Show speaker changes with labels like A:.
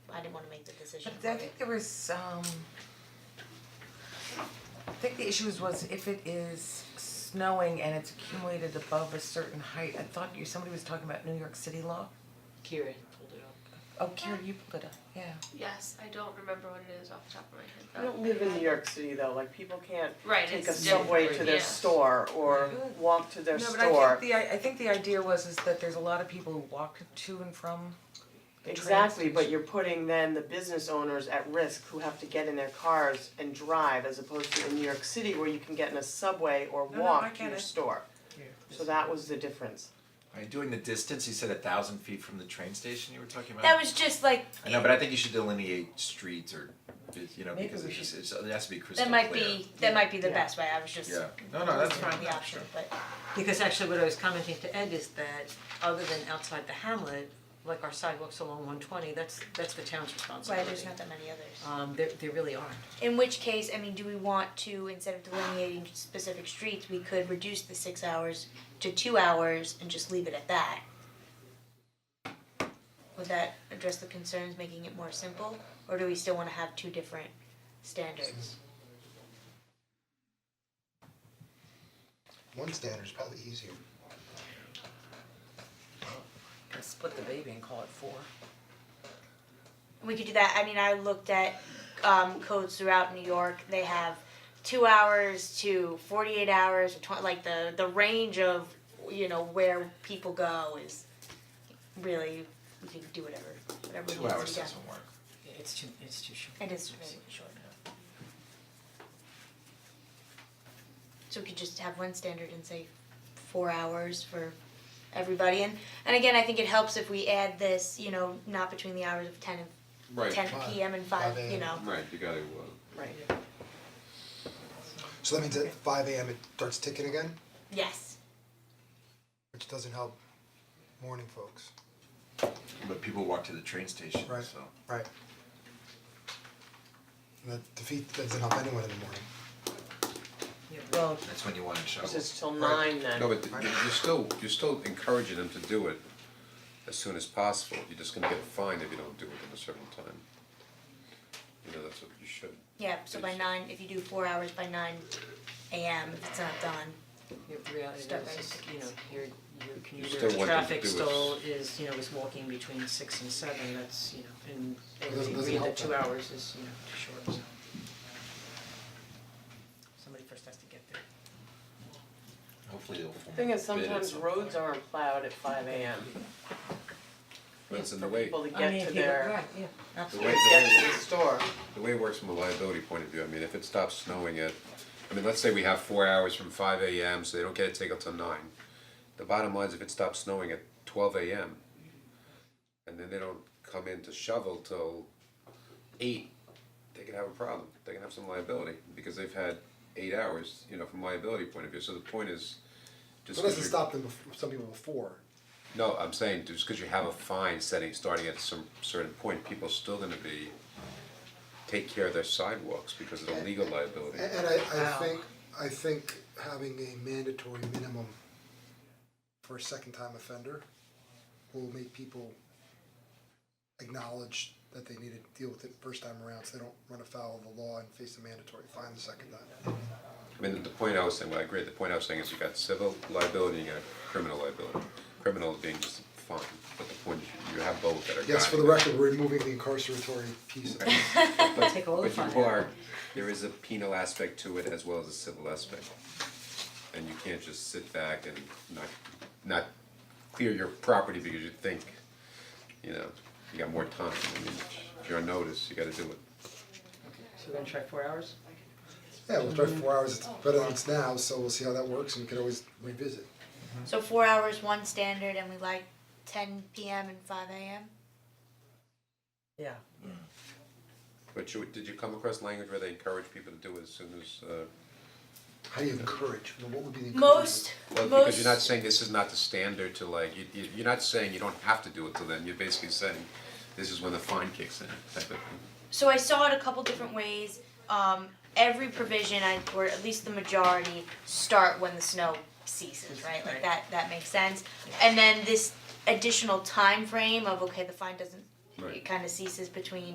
A: decision.
B: But I think there was um I think the issue was- was if it is snowing and it's accumulated above a certain height, I thought you, somebody was talking about New York City law.
A: Kieran pulled it up.
B: Oh, Karen, you put it up, yeah.
C: Yes, I don't remember what it is off the top of my head
D: I
C: though.
D: don't live in New York City though, like people can't
C: Right,
D: take a
C: it's
D: subway to
C: different,
D: their
C: yeah.
D: store or walk to their store.
B: No, but I think the I I think the idea was is that there's a lot of people who walk to and from the train
D: Exactly, but
B: station.
D: you're putting then the business owners at risk who have to get in their cars and drive as opposed to in New York City where you can get in a subway or
B: No, no, I
D: walk to
B: get
D: your
B: it.
D: store. So that was the difference.
E: Are you doing the distance? You said a thousand feet from the train station you were talking about?
F: That was just like
E: I know, but I think you should delineate streets or, you know,
B: Maybe
E: because
B: we
E: it's just, it's, it has to be crystal
F: that
E: clear.
F: might be that might be the
D: Yeah.
F: best way. I was just
E: Yeah, no, no, that's fine,
F: the
E: yeah,
F: option,
E: sure.
F: but
A: Because actually what I was commenting to Ed is that other than outside the hamlet, like our sidewalks along one twenty, that's that's the town's
F: right,
A: responsibility.
F: there's not that many others.
B: Uh,
A: Um there there really aren't.
F: In which case, I mean, do we want to, instead of delineating specific streets, we could reduce the six hours to two hours and just leave it at that? Would that address the concerns, making it more simple, or do we still wanna have two different standards?
G: One standard is probably easier.
B: Split the baby and call it four.
F: We could do that, I mean, I looked at um codes throughout New York, they have two hours to forty-eight hours, or twen- like the the range of, you know, where people go is really, we can do whatever, whatever needs to
E: Two
F: be done.
E: hours doesn't work.
A: It's too it's too short.
F: It is really short. So we could just have one standard and say four hours for everybody and and again, I think it helps if we add this, you know, not between the hours of ten and
H: Right.
F: ten
G: Five.
F: PM and five,
G: Five
F: you
G: a.m.
F: know.
H: Right, you gotta, uh,
D: Right.
G: So that means at five AM it starts ticking again,
F: Yes.
G: which doesn't help morning folks,
E: But people walk to the train station,
G: Right.
E: so.
G: right? And that defeat doesn't help anyone in the morning.
B: Well,
E: That's when you want to shovel.
D: This is till
H: Right.
D: nine then.
H: No, but you- you're still, you're still encouraging them to do it as soon as possible, you're just gonna get fined if you don't do it at a certain time. You know, that's what you should.
F: Yeah, so by nine, if you do four hours by nine AM, if it's not done,
A: The reality
F: Start
A: is, is, you know, your your commuter
H: still want them to
A: traffic
H: do it.
A: stall is, you know, is walking between six and seven, that's, you know, and everything,
G: doesn't
A: agree that
G: help
A: two
G: them.
A: hours is, you know, too short, so. Somebody first has to get there.
E: Hopefully they'll form a
D: Thing
E: bid
D: is
E: at
D: sometimes
E: some
D: roads
E: point.
D: aren't plowed at five AM
H: But it's in the
D: for
H: way,
D: people to
A: I mean,
D: get to
A: if you-
D: their,
A: right, yeah,
H: the
A: absolutely.
H: way,
D: get
H: the
D: to
H: way,
D: the store.
H: the way it works from a liability point of view, I mean, if it stops snowing at, I mean, let's say we have four hours from five AM, so they don't get it taken till nine. The bottom line is if it stops snowing at twelve AM, and then they don't come in to shovel till eight, they can have a problem, they can have some liability, because they've had eight hours, you know, from liability point of view, so the point is, just
G: So it
H: 'cause
G: doesn't
H: you're-
G: stop them, bef- some people before.
H: no, I'm saying just because you have a fine setting, starting at some certain point, people are still gonna be, take care of their sidewalks because of the legal liability.
G: A- And I I think, I think having a mandatory minimum for a second time offender will make people acknowledge that they need to deal with it first time around, so they don't run afoul of the law and face a mandatory fine the second time.
H: I mean, the point I was saying, well, I agree, the point I was saying is you got civil liability and you got criminal liability. Criminal being just a fine, but the point is you have both that are
G: Yes, for the
H: guiding.
G: record, we're removing the incarceratory piece of it.
H: But-
A: Take all the
H: But
A: fun
H: you
A: out.
H: are, there is a penal aspect to it as well as a civil aspect. And you can't just sit back and not, not clear your property because you think, you know, you got more time. I mean, if you're on notice, you gotta do it.
A: So we're gonna try four hours?
G: Yeah, we'll try four hours, it's better than it's now, so we'll see how that works and we can always revisit.
F: so four hours, one standard, and we like ten PM and five AM?
A: Yeah.
H: But you, did you come across language where they encourage people to do it as soon as, uh,
G: How do you encourage, Well, what would be the encouragement?
F: Most,
H: well, because you're not
F: most,
H: saying this is not the standard to like, you, you, you're not saying you don't have to do it till then, you're basically saying this is when the fine kicks in, type of thing.
F: so I saw it a couple different ways, um, every provision I, or at least the majority, start when the snow ceases, right, like
A: Right.
F: that, that makes sense. And then this additional time frame of, okay, the fine doesn't,
H: Right.
F: it kinda ceases between